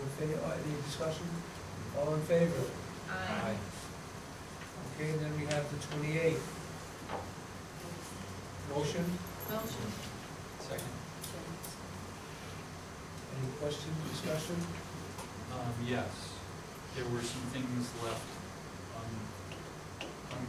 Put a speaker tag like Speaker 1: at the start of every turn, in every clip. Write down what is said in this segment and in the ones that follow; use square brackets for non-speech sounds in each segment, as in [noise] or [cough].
Speaker 1: in favor, any discussion? All in favor?
Speaker 2: Aye.
Speaker 1: Okay, then we have the twenty-eighth. Motion,
Speaker 2: Motion.
Speaker 3: Second.
Speaker 1: any question, discussion?
Speaker 3: Um, yes, there were some things left un, un,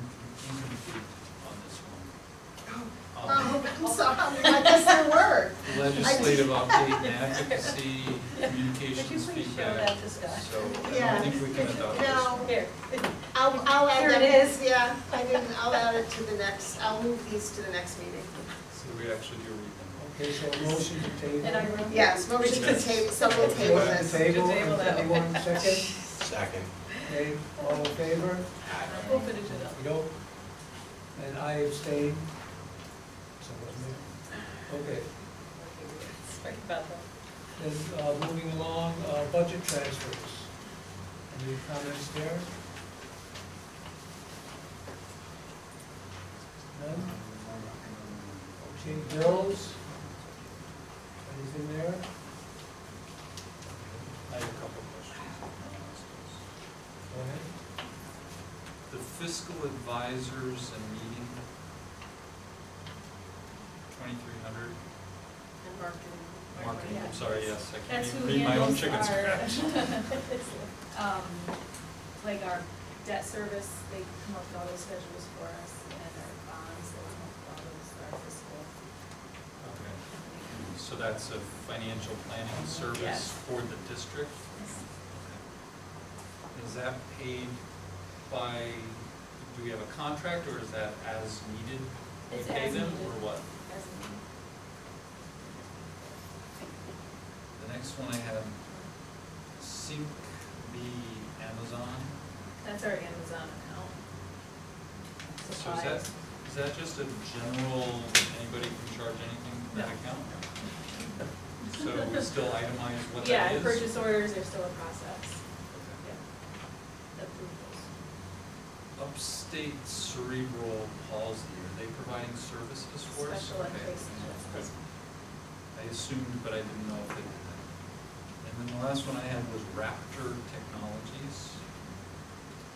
Speaker 3: incomplete on this one. Um,
Speaker 2: Oh, I'm sorry, I guess there were.
Speaker 4: Oh.
Speaker 3: Legislative update
Speaker 4: [laughs]
Speaker 3: and advocacy,
Speaker 4: Could you
Speaker 3: communications
Speaker 4: please show that
Speaker 3: feedback,
Speaker 4: to Scott?
Speaker 3: so I
Speaker 2: Yeah.
Speaker 3: don't think we can adopt this.
Speaker 2: No,
Speaker 4: Here.
Speaker 2: I'll, I'll add
Speaker 4: Here
Speaker 2: that.
Speaker 4: it is.
Speaker 2: Yeah, I didn't, I'll add it to the next, I'll move these to the next meeting.
Speaker 3: So we actually do read
Speaker 1: Okay, so a motion to table.
Speaker 4: And I wrote.
Speaker 2: Yes, motion to
Speaker 3: Yes.
Speaker 2: table, so we'll table
Speaker 1: Motion to
Speaker 2: this.
Speaker 1: table,
Speaker 4: To table that.
Speaker 1: anyone
Speaker 4: [laughs]
Speaker 1: second?
Speaker 5: Second.
Speaker 1: Okay, all in favor?
Speaker 4: We'll finish it up.
Speaker 1: You don't? And I abstain? So wasn't it? Okay,
Speaker 4: Sorry about that.
Speaker 1: then, uh, moving along, uh, budget transfers. Any comments there?
Speaker 3: Um,
Speaker 1: None? Um, Okay, bills? Anything there?
Speaker 3: them. I have a couple questions.
Speaker 1: Go ahead.
Speaker 3: The fiscal advisors and meeting, twenty-three hundred,
Speaker 2: And marketing.
Speaker 3: marketing, I'm sorry, yes, I can't
Speaker 4: That's
Speaker 3: even
Speaker 4: who
Speaker 3: read my own
Speaker 4: handles
Speaker 3: chicken
Speaker 4: our,
Speaker 3: scratch.
Speaker 4: [laughs] um, like our debt service, they come up with all those schedules for us, and our bonds, they come up with all those, our fiscal.
Speaker 3: Okay. So that's a financial planning service
Speaker 4: Yes.
Speaker 3: for the district? Is that paid by, do we have a contract, or is that as needed? We
Speaker 4: It's
Speaker 3: pay
Speaker 4: as
Speaker 3: them,
Speaker 4: needed.
Speaker 3: Or what?
Speaker 4: As in-
Speaker 3: The next one I have, sync the Amazon.
Speaker 4: That's our Amazon account.
Speaker 3: So is
Speaker 4: Supplies.
Speaker 3: that, is that just a general, anybody can charge anything to that
Speaker 4: No.
Speaker 3: account? So we still itemize what
Speaker 4: Yeah,
Speaker 3: that
Speaker 4: and
Speaker 3: is?
Speaker 4: purchase orders are still a process,
Speaker 3: Okay.
Speaker 4: yeah. Approvals.
Speaker 3: Upstate cerebral palsy, are they providing services for us?
Speaker 4: Special
Speaker 3: Okay.
Speaker 4: education.
Speaker 3: Good. I assumed, but I didn't know if they did that. And then the last one I had was Raptor Technologies.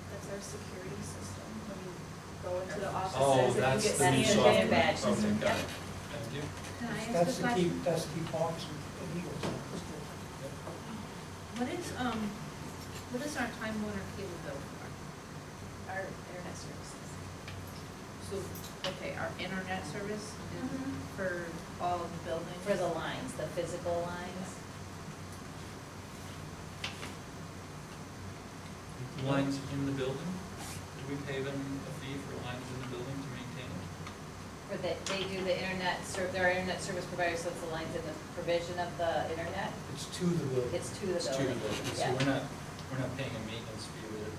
Speaker 4: That's our security system, when you go into the
Speaker 3: Oh,
Speaker 4: offices and you
Speaker 3: that's
Speaker 4: get
Speaker 3: the new
Speaker 4: scanned in.
Speaker 3: software.
Speaker 4: badge
Speaker 3: Okay,
Speaker 4: system.
Speaker 3: got it. Thank you.
Speaker 6: Can I
Speaker 1: That's
Speaker 6: ask a
Speaker 1: to keep,
Speaker 6: question?
Speaker 1: that's to keep hawks and eagles out of the school.
Speaker 6: What is, um, what is our Time Warner cable bill for? Our internet services? So, okay, our internet service is
Speaker 4: Mm-hmm.
Speaker 6: for all of the buildings?
Speaker 7: For the lines, the physical lines?
Speaker 3: Lines in the building? Do we pay them a fee for lines in the building to maintain it?
Speaker 7: For the, they do the internet, ser- they're our internet service providers, so it's the lines in the provision of the internet?
Speaker 1: It's to the building.
Speaker 7: It's to the building?
Speaker 3: It's to the building, so
Speaker 7: Yeah.
Speaker 3: we're not, we're not paying a maintenance fee with it.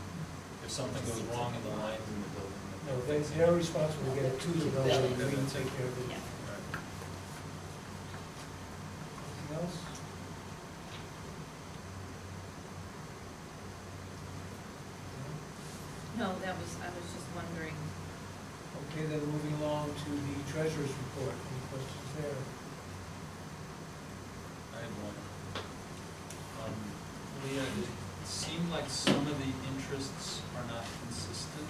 Speaker 3: If something goes wrong in the lines in the building. then-
Speaker 1: No, they, they're responsible, to get it to the building, and we can take care of it.
Speaker 7: Yeah.
Speaker 1: Anything
Speaker 3: Right.
Speaker 1: else?
Speaker 6: No, that was, I was just wondering.
Speaker 1: Okay, then moving along to the treasurer's report, any questions there?
Speaker 3: I had one. Um, Leah, it seemed like some of the interests are not consistent.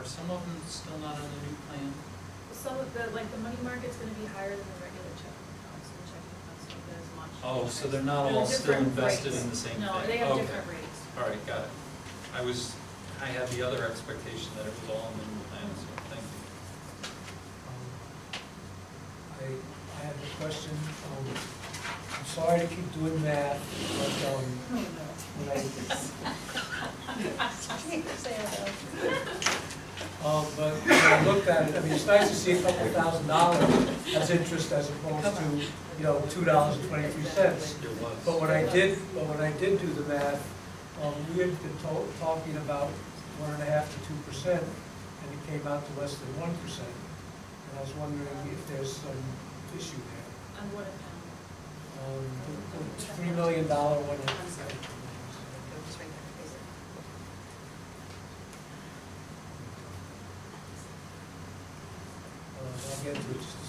Speaker 3: Are some of them still not on the new plan?
Speaker 4: Some of the, like, the money market's gonna be higher than the regular checking accounts, and the checking accounts don't get as much.
Speaker 3: Oh, so they're not
Speaker 4: They're
Speaker 3: all still
Speaker 4: different
Speaker 3: invested
Speaker 4: rates.
Speaker 3: in the same thing? Oh,
Speaker 4: No, they have
Speaker 3: Okay.
Speaker 4: different rates.
Speaker 3: All right, got it. I was, I had the other expectation that it was all in the new plan, so thank you.
Speaker 1: Um, I, I have a question, um, I'm sorry to keep doing math, but, um, when I, um, but when I looked at it, I mean, it's nice to see a couple thousand dollars as interest as opposed to, you know, two dollars and twenty-three cents.
Speaker 3: It
Speaker 1: But
Speaker 3: was.
Speaker 1: when I did, but when I did do the math, um, we had been to- talking about one and a half to two percent, and it came out to less than one percent. And I was wondering if there's some issue there.
Speaker 4: On what account?
Speaker 1: Um, the- the three million dollar one.
Speaker 2: I'm sorry. Go just right there, please.
Speaker 1: Uh, I'll get to it just